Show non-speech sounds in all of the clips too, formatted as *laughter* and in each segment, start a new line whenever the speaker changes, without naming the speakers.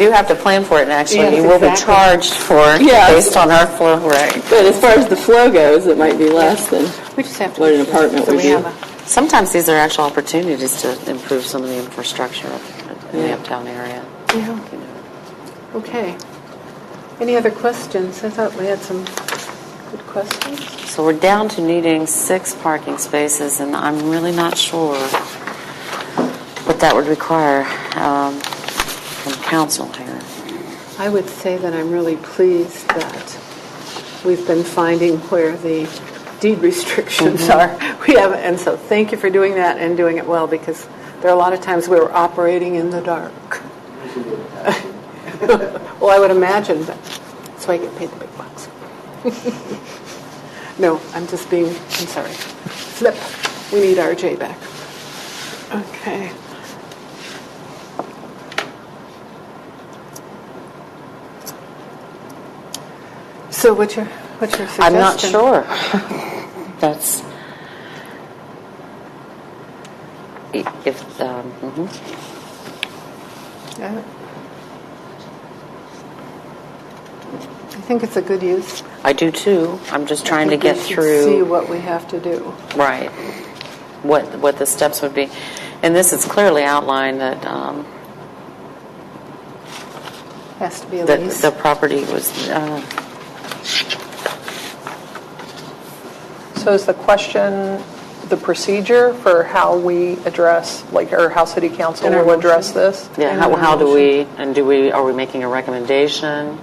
do have to plan for it, and actually, you
Yes,
will be
exactly.
charged for,
Yeah.
based on our flow rate.
But as far as the flow goes, it might be less than
We just have to.
what an apartment
So
would
we
be.
have a-
Sometimes these are actual opportunities to improve some of the infrastructure in the uptown area.
Yeah, okay. Any other questions? I thought we had some good questions.
So we're down to needing six parking spaces, and I'm really not sure what that would require um, from council here.
I would say that I'm really pleased that we've been finding where the deed restrictions are.
Mm-hmm.
*laughs* We have, and so thank you for doing that and doing it well, because there are a lot of times we were operating in the dark. Well, I would imagine, but that's why I get paid the big bucks. *laughs* No, I'm just being, I'm sorry. Flip, we need RJ back. Okay. So what's your, what's your suggestion?
I'm not
*laughs*
sure. That's, if, um, mhm.
Yeah. I think it's a good use.
I do too. I'm just trying to
I think
get
we should See
through,
what we have to do.
right, what, what the steps would be. And this is clearly outlined that, um,
Has to be a
that
lease.
the property was, uh,
So is the question the procedure for how we address, like, or how city council
In our
will address this?
yeah, how, how do we, and do we, are we making a recommendation?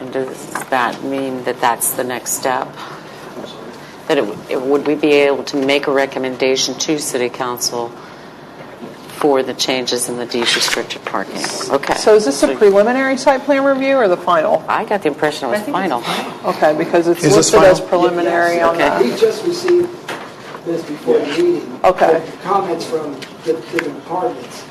And does that mean that that's the next step? That it, would- it- would we be able to make a recommendation to city council for the changes in the deed restricted parking? Okay.
So is this a preliminary site plan review or the final?
I got the impression it was final.
Okay, because it's
Is this
listed as
final?
preliminary on
Okay.
that.
We just received this before the meeting.
Okay.
Comments from the different departments.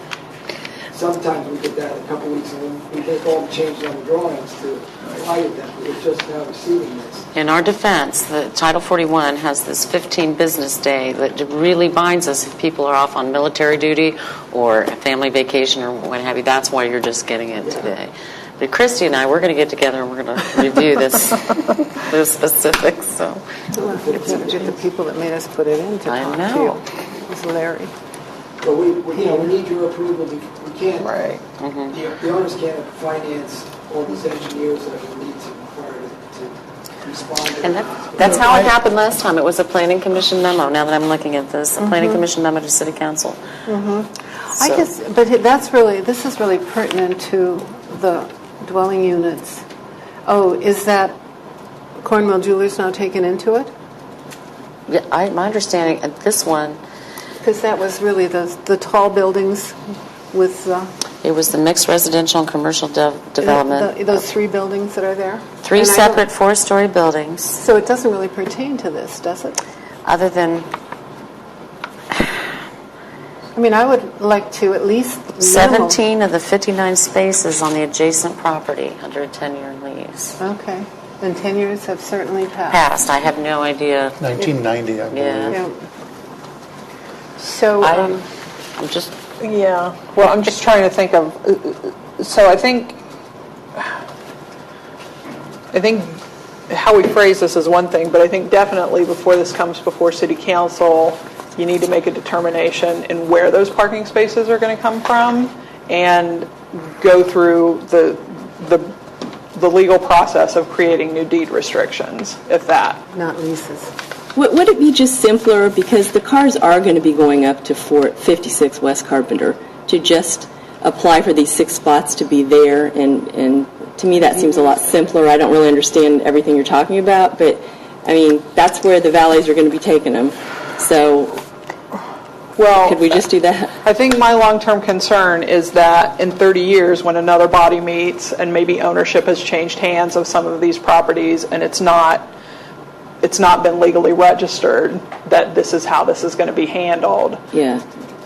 Sometimes we get that in a couple weeks, and then we make all the changes on the drawings to apply to them. We're just now receiving this.
In our defense, the Title 41 has this 15 business day that really binds us if people are off on military duty or a family vacation or what have you. That's why you're just getting it today. But Christy and I, we're going to get together and we're going to review
*laughs*
this, the specifics, so.
We'll have to Get the people that made us put it in to
I
talk to
know.
you. It was Larry.
But we, we- you know, we need your approval. We we can't,
Right.
Mm-hmm.
the the owners can't finance all these engineers that we need to require to- to respond. to
And
this.
that, that's how it happened last time. It was a planning commission memo. Now that I'm looking at this, a
Mm-hmm.
planning commission memo to city council.
I
So-
guess, but it- that's really, this is really pertinent to the dwelling units. Oh, is that Cornwall Jewelers now taken into it?
Yeah, I, my understanding, at this one,
Because that was really the, the tall buildings with the,
it was the mixed residential and commercial de- development.
the- those three buildings that are there.
Three
And I don't-
separate four-story buildings,
So it doesn't really pertain to this, does it?
other than
I mean, I would like to at least. know-
17 of the 59 spaces on the adjacent property under a 10-year lease.
Okay. And 10 years have certainly passed.
Passed, I have no idea.
1990, I
Yeah.
believe.
Yeah. So. um,
I'm, I'm just,
Yeah, well, I'm just trying to think of, uh, so I think, I think how we phrase this is one thing, but I think definitely before this comes before city council, you need to make a determination in where those parking spaces are going to come from and go through the, the, the legal process of creating new deed restrictions, if that.
Not leases.
Would would it be just simpler, because the cars are going to be going up to four- 56 West Carpenter, to just apply for these six spots to be there? And, and to me, that seems a lot simpler. I don't really understand everything you're talking about, but, I mean, that's where the valets are going to be taking them. So
Well.
could we just do that?
I think my long-term concern is that in 30 years, when another body meets and maybe ownership has changed hands of some of these properties and it's not, it's not been legally registered, that this is how this is going to be handled,
Yeah.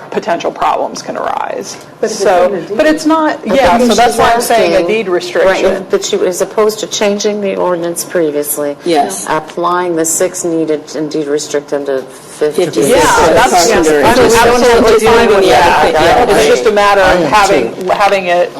potential problems can arise.
But it's
So,
in the deed.
but it's not, yeah, so that's why I'm saying a deed restriction.
right, that you, as opposed to changing the ordinance previously.
Yes.
Applying the six needed and deed restrict them to 50.
56
Yeah,
West
that's,
Carpenter.
I'm
Just-
absolutely
just
fine
doing
with
the other
that.
thing. Yeah, I
It's just a matter
I
of
am
having, having it